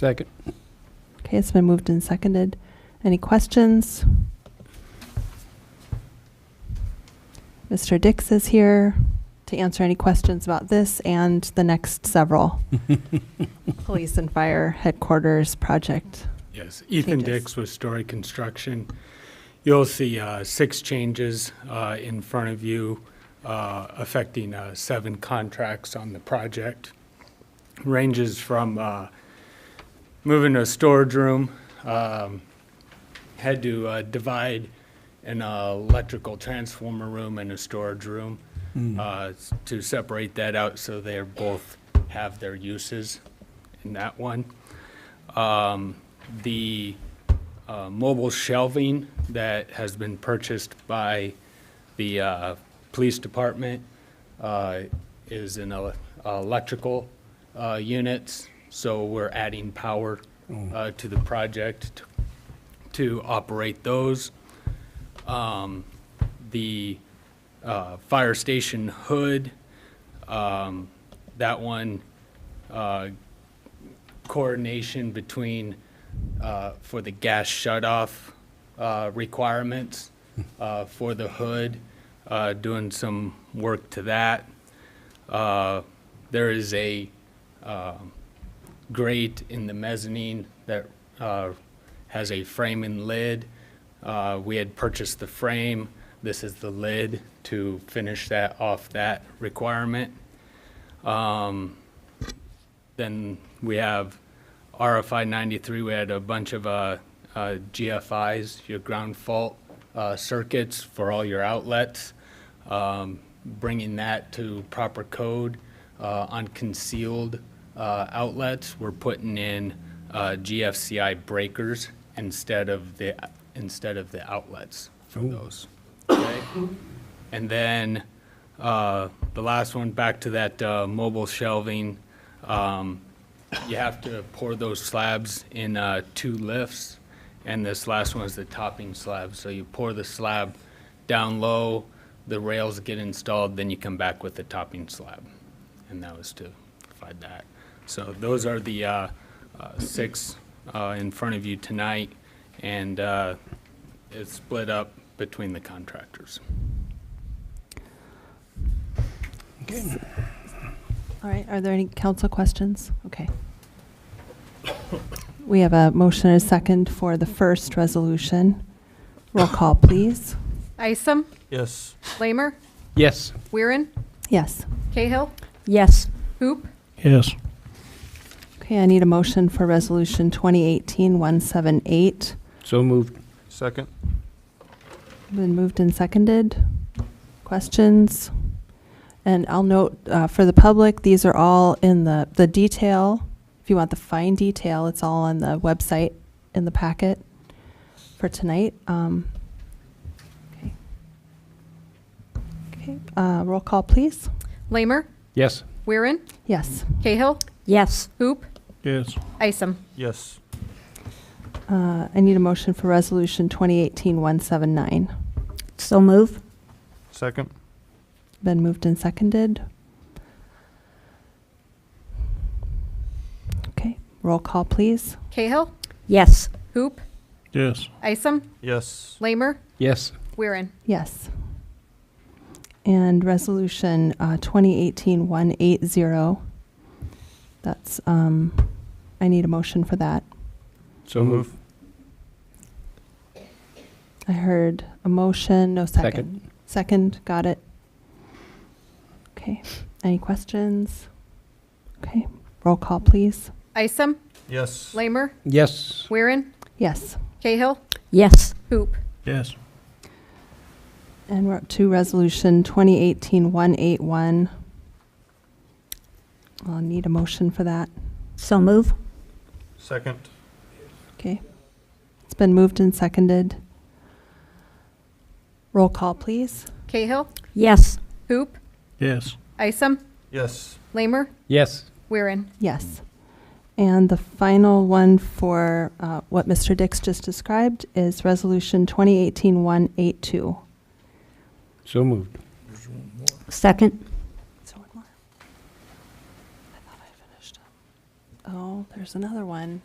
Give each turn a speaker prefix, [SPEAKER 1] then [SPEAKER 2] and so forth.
[SPEAKER 1] Second.
[SPEAKER 2] Okay, it's been moved and seconded. Any questions? Mr. Dix is here to answer any questions about this and the next several police and fire headquarters project.
[SPEAKER 3] Yes, Ethan
[SPEAKER 2] Changes.
[SPEAKER 3] Dix with Story Construction. You'll see uh, six changes uh, in front of you uh, affecting uh, seven contracts on the project. Ranges from uh, moving a storage room, um, had to uh, divide an uh, electrical transformer room and a storage room uh, s- to separate that out so they both have their uses in that one. Um, The uh, mobile shelving that has been purchased by the uh, police department uh, is in ele- electrical uh, units, so we're adding power uh, to the project t- to operate those. Um, The uh, fire station hood, um, that one uh, coordination between, uh, for the gas shutoff uh, requirements uh, for the hood, uh, doing some work to that. Uh, There is a um, grate in the mezzanine that uh, has a frame and lid. Uh, We had purchased the frame. This is the lid to finish that off that requirement. Then we have RFI 93, we had a bunch of uh, uh, GFIs, your ground fault uh, circuits for all your outlets, Um, bringing that to proper code uh, on concealed uh, outlets. We're putting in uh, GFCI breakers instead of the, instead of the outlets for those. Okay? And then uh, the last one, back to that uh, mobile shelving. um, You have to pour those slabs in uh, two lifts, and this last one is the topping slab. So you pour the slab down low, the rails get installed, then you come back with the topping slab. And that was to provide that. So those are the uh, uh, six uh, in front of you tonight, and uh, it's split up between the contractors.
[SPEAKER 2] All right, are there any council questions? Okay. We have a motion and a second for the first resolution. Roll call, please.
[SPEAKER 4] Isom,
[SPEAKER 1] Yes.
[SPEAKER 4] Lamer,
[SPEAKER 1] Yes.
[SPEAKER 4] Weirin,
[SPEAKER 2] Yes.
[SPEAKER 4] Cahill,
[SPEAKER 5] Yes.
[SPEAKER 4] Hoop,
[SPEAKER 1] Yes.
[SPEAKER 2] Okay, I need a motion for Resolution 2018-178.
[SPEAKER 1] So moved. Second.
[SPEAKER 2] Been moved and seconded. Questions? And I'll note, uh, for the public, these are all in the, the detail. If you want the fine detail, it's all on the website in the packet for tonight. Um, Okay. Okay, uh, roll call, please.
[SPEAKER 4] Lamer,
[SPEAKER 1] Yes.
[SPEAKER 4] Weirin,
[SPEAKER 2] Yes.
[SPEAKER 4] Cahill,
[SPEAKER 5] Yes.
[SPEAKER 4] Hoop,
[SPEAKER 1] Yes.
[SPEAKER 4] Isom.
[SPEAKER 1] Yes.
[SPEAKER 2] Uh, I need a motion for Resolution 2018-179.
[SPEAKER 5] So move.
[SPEAKER 1] Second.
[SPEAKER 2] Been moved and seconded. Okay, roll call, please.
[SPEAKER 4] Cahill,
[SPEAKER 5] Yes.
[SPEAKER 4] Hoop,
[SPEAKER 1] Yes.
[SPEAKER 4] Isom,
[SPEAKER 1] Yes.
[SPEAKER 4] Lamer,
[SPEAKER 1] Yes.
[SPEAKER 4] Weirin.
[SPEAKER 2] Yes. And Resolution uh, 2018-180, that's, um, I need a motion for that.
[SPEAKER 1] So moved.
[SPEAKER 2] I heard a motion, no second.
[SPEAKER 1] Second.
[SPEAKER 2] Second, got it. Okay, any questions? Okay, roll call, please.
[SPEAKER 4] Isom,
[SPEAKER 1] Yes.
[SPEAKER 4] Lamer,
[SPEAKER 1] Yes.
[SPEAKER 4] Weirin,
[SPEAKER 2] Yes.
[SPEAKER 4] Cahill,
[SPEAKER 5] Yes.
[SPEAKER 4] Hoop,
[SPEAKER 1] Yes.
[SPEAKER 2] And we're up to Resolution 2018-181. I'll need a motion for that.
[SPEAKER 5] So move.
[SPEAKER 1] Second.
[SPEAKER 2] Okay. It's been moved and seconded. Roll call, please.
[SPEAKER 4] Cahill,
[SPEAKER 5] Yes.
[SPEAKER 4] Hoop,
[SPEAKER 1] Yes.
[SPEAKER 4] Isom,
[SPEAKER 1] Yes.
[SPEAKER 4] Lamer,
[SPEAKER 1] Yes.
[SPEAKER 4] Weirin.
[SPEAKER 2] Yes. And the final one for uh, what Mr. Dix just described is Resolution 2018-182.
[SPEAKER 1] So moved.
[SPEAKER 5] Second.
[SPEAKER 2] So one more. I thought I finished. up. Oh, there's another one.